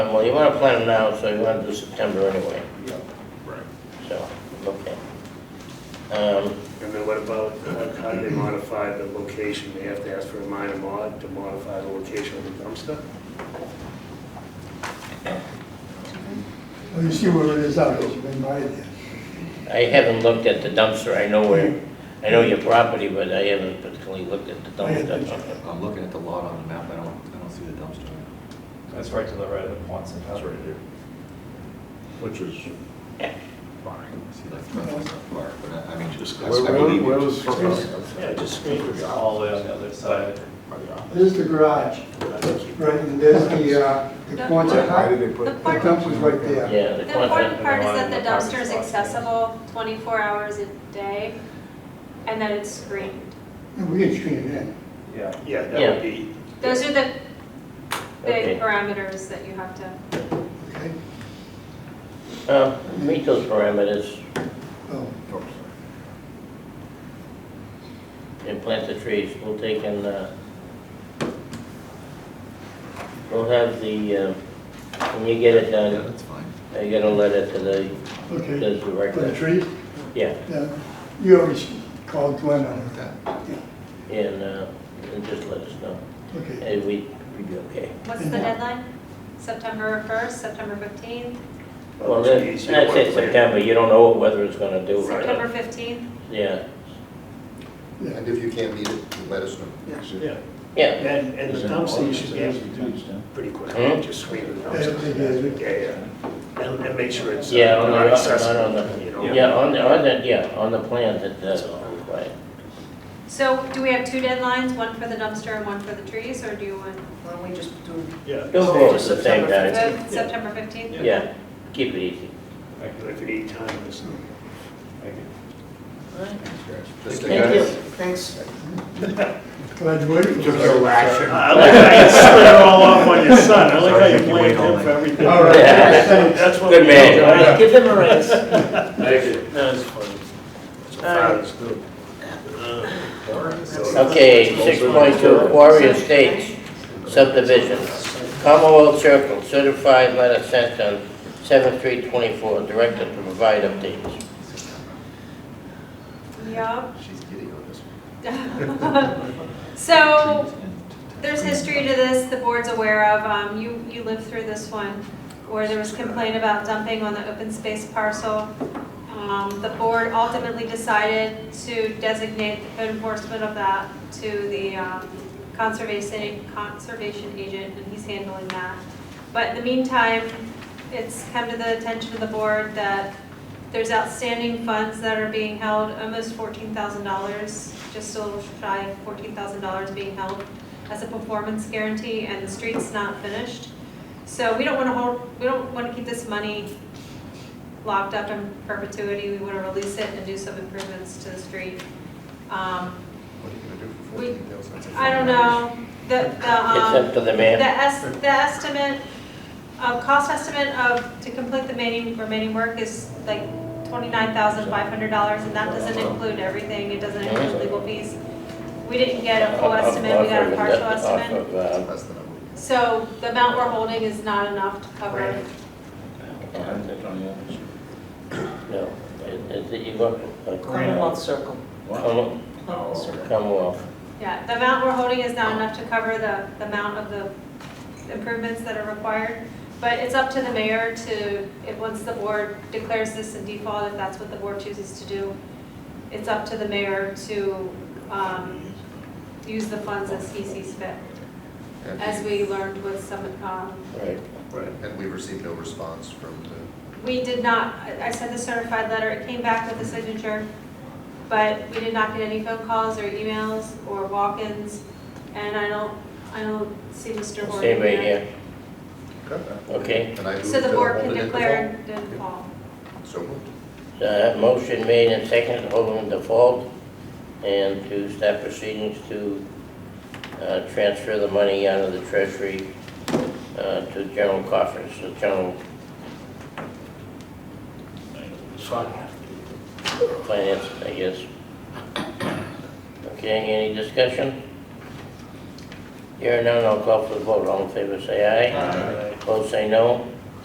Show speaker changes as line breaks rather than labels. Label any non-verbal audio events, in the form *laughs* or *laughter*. well, you want to plan it now, so you want to do September anyway,
Yeah.
Right.
so, okay. Um,
And then what about, uh, how do they modify the location? They have to ask for a minor mod to modify the location of the dumpster?
Well, you see where it is out, there. you've been by there.
I haven't looked at the dumpster, I know where, I know your property, but I haven't particularly looked at the
I had
dumpster.
pictures.
I'm looking at the lot on the map, I don't, I don't see the dumpster.
That's right to the right of the Quonset
That's
hut.
right here. Which is fine.
I see like trucks up far, but I, I mean, just. I- I
Where, where,
believe
where
you.
was?
Yeah, just-
It's all the way on the other side.
There's the garage, right, and there's the, uh, the Quonset
Why
hut,
did they put?
The
the
part-
dump was right there.
Yeah, the
The
Quonset,
important part is that
They wanted
the
the
dumpster is
parking spots.
accessible 24 hours a day, and that it's screened.
And we can screen it in.
Yeah.
Yeah, that
Yeah.
would be,
Those are the
Okay.
big parameters that you have to,
okay?
uh, meet those parameters,
So,
and plant the trees, we'll take and, uh, we'll have the, uh, when you get it
Yeah,
done,
that's fine.
I got a letter to the, to
okay,
the
for the
record.
trees,
Yeah,
yeah, you always called Glenn on it,
That-
and, uh, and just let us know,
okay.
and we, we'd be okay.
what's the deadline? September 1st, September 15th,
Well,
well,
then, I'd
geez, you don't want
say
to plan.
September, you don't know what weather it's gonna do.
September 15th?
Yeah,
Yeah.
And if you can't meet it, let us know.
Yeah.
yeah,
And, and the dumpster, you should be able to do pretty
Hmm?
quickly, just screen the
I don't think it is.
dumpster. Yeah, yeah, and, and make sure it's. uh,
yeah, on
not
the, not
accessible,
on the,
you know?
yeah, on the, on the, yeah, on the plan that, uh, that's all required.
So do we have two deadlines, one for the dumpster and one for the trees, or do you want
Why don't we just do?
Yeah.
Don't
So
vote at
just
the same
September
time,
both September 15th?
yeah, keep it easy.
But If you need time, it's.
Thank you.
Just
Thank
like-
you.
Thanks.
Glad you waited. for us.
I like how you split it all off on your son, I like how you blamed him for everything.
All right, thanks.
That's what.
Good
we
man.
do,
All right,
right?
give them a raise. All
That was funny. That's what
uh,
fathers do. So-
Okay, six point two, Quarry Estates subdivision, Commonwealth Circle, certified letter sent on seven three twenty-four, directed to provide updates.
Yeah.
She's getting on this one.
*laughs* So
Trees and-
Oh, There's history to this, the board's aware of, um, you, you lived through this one, where there was complaint about dumping on the open space parcel. Um, the board ultimately decided to designate the code enforcement of that to the, um, conservation, conservation agent, and he's handling that. But in the meantime, it's come to the attention of the board that there's outstanding funds that are being held, almost fourteen thousand dollars, just a little shy of fourteen thousand dollars being held as a performance guarantee, and the street's not finished. So we don't want to hold, we don't want to keep this money locked up in perpetuity. We want to release it and do some improvements to the street. Um,
What are you gonna do for
We-
14,000?
I don't know, the, the,
It's
um.
up to the
The
man.
es, the estimate, uh, cost estimate of, to complete the remaining, remaining work is like twenty-nine thousand five hundred dollars, and that doesn't include everything, it doesn't include legal fees. We didn't get a full estimate, we got a partial
Off of,
estimate.
uh,
That's the number.
So the amount we're holding is not enough to cover.
No, it- it's, you got. uh,
Commonwealth Circle.
Come,
Commonwealth Circle.
come off.
Yeah, the amount we're holding is not enough to cover the, the amount of the improvements that are required. But it's up to the mayor to, if, once the board declares this in default, if that's what the board chooses to do, it's up to the mayor to, um, use the funds as he sees fit,
And-
as we learned with some, um,
Right.
Right.
And we received no response from the,
we did not, I I sent the certified letter, it came back with a signature, but we did not get any phone calls or emails or walk-ins, and I don't, I don't see Mr. Horgan
Same right
yet.
here, okay?
and I moved
So
to
the board
hold
can
it in
declare default.
default. So moved.
Uh, motion made and seconded, to hold in default, and to start proceedings to, uh, transfer the money out of the treasury, uh, to general coffers, the general finance, I guess. Okay, any discussion? Here and now, I'll call for the vote, all in favor, say aye.
All right.
Opposed, say no.